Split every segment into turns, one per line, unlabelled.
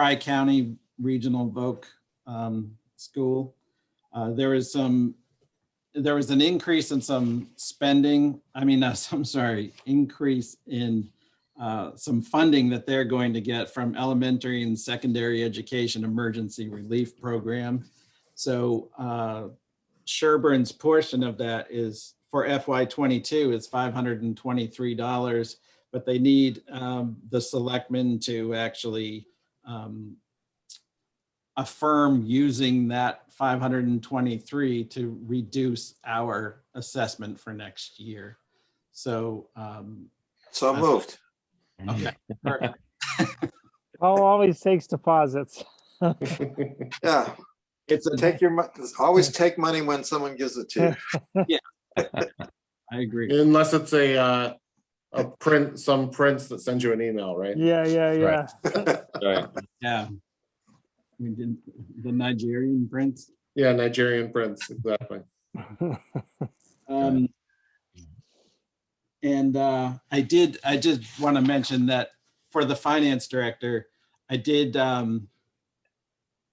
Tri-County Regional Voc um, School. Uh, There is some, there was an increase in some spending, I mean, uh, I'm sorry, increase in uh, some funding that they're going to get from Elementary and Secondary Education Emergency Relief Program. So uh, Sherburne's portion of that is for FY twenty-two is five hundred and twenty-three dollars. But they need um, the selectmen to actually um, affirm using that five hundred and twenty-three to reduce our assessment for next year. So, um,
So moved.
okay. perfect.
Paul always takes deposits.
Yeah,
It's a,
take your, mo- always take money when someone gives it to you.
I agree.
Unless it's a, uh, a print, some prints that send you an email, right?
Yeah, yeah, yeah.
Yeah. We did the Nigerian prince.
Yeah, Nigerian prints, exactly.
Um, and uh, I did, I just want to mention that for the finance director, I did um,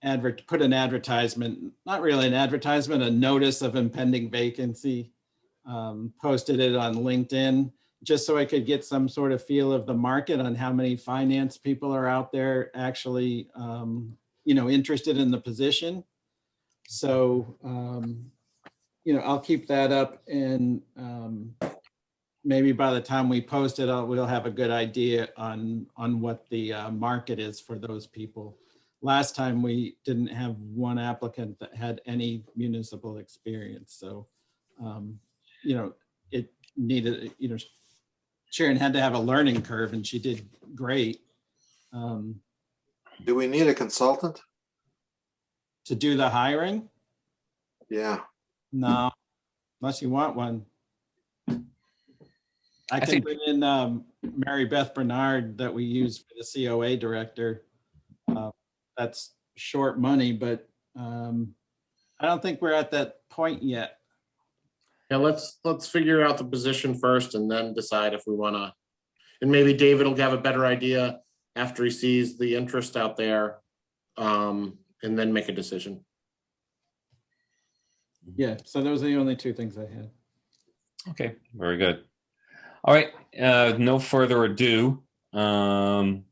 advert, put an advertisement, not really an advertisement, a notice of impending vacancy. Um, posted it on LinkedIn, just so I could get some sort of feel of the market on how many finance people are out there actually, um, you know, interested in the position. So, um, you know, I'll keep that up and um, maybe by the time we post it, I'll- we'll have a good idea on, on what the uh, market is for those people. Last time, we didn't have one applicant that had any municipal experience, so, um, you know, it needed, you know, Sharon had to have a learning curve and she did great um,
Do we need a consultant?
to do the hiring.
Yeah,
No, unless you want one. I
I
can
think-
bring in um, Mary Beth Bernard that we use for the COA director. Uh, That's short money, but um, I don't think we're at that point yet.
Yeah, let's, let's figure out the position first and then decide if we wanna. And maybe David will have a better idea after he sees the interest out there. Um, and then make a decision.
Mm-hmm.
Yeah, so those are the only two things I had.
Okay, very good. All right, uh, no further ado. Um,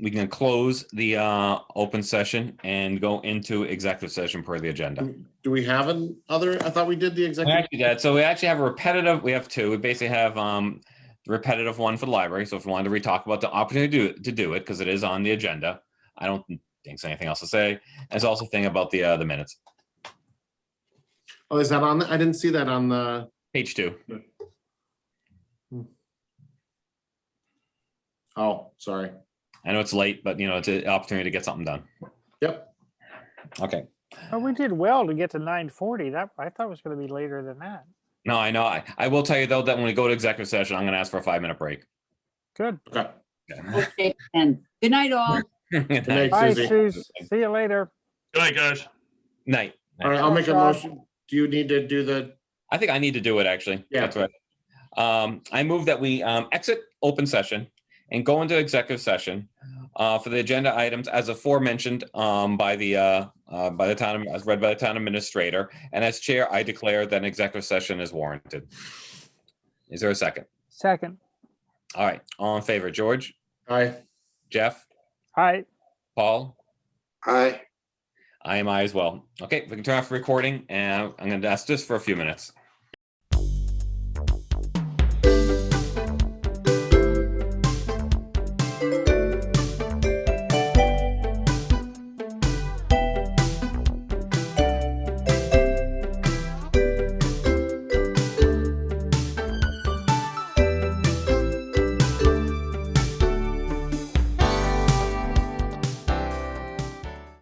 we can close the, uh, open session and go into executive session per the agenda.
Do we have an other, I thought we did the
We
executive.
actually did. So we actually have a repetitive, we have two. We basically have, um, the repetitive one for the library. So if we wanted to re-talk about the opportunity to, to do it, because it is on the agenda. I don't think there's anything else to say. There's also a thing about the, uh, the minutes.
Oh, is that on? the- I didn't see that on the,
Page two.
oh, sorry.
I know it's late, but you know, it's an opportunity to get something done.
Yep.
Okay.
Well, Oh, we did well to get to nine forty. That, I thought it was gonna be later than that.
No, I know. I, I will tell you though, that when we go to executive session, I'm gonna ask for a five minute break.
Good.
Okay.
Yeah.
Okay, then. Good night, all.
Good
Good night,
night.
Bye,
Susie.
Suze. See you later.
Good night, guys.
Night.
All right, I'll make a
Rob.
motion. Do you need to do the,
I think I need to do it actually.
Yeah.
That's right. Um, I move that we um, exit open session and go into executive session uh, for the agenda items as aforementioned um, by the uh, uh, by the town as read by the town administrator. And as chair, I declare that an executive session is warranted. Is there a second?
Second.
All right. All in favor, George,
I,
Jeff,
All right.
Paul,
aye.
I am I as well. Okay, we can turn off the recording and I'm going to ask this for a few minutes.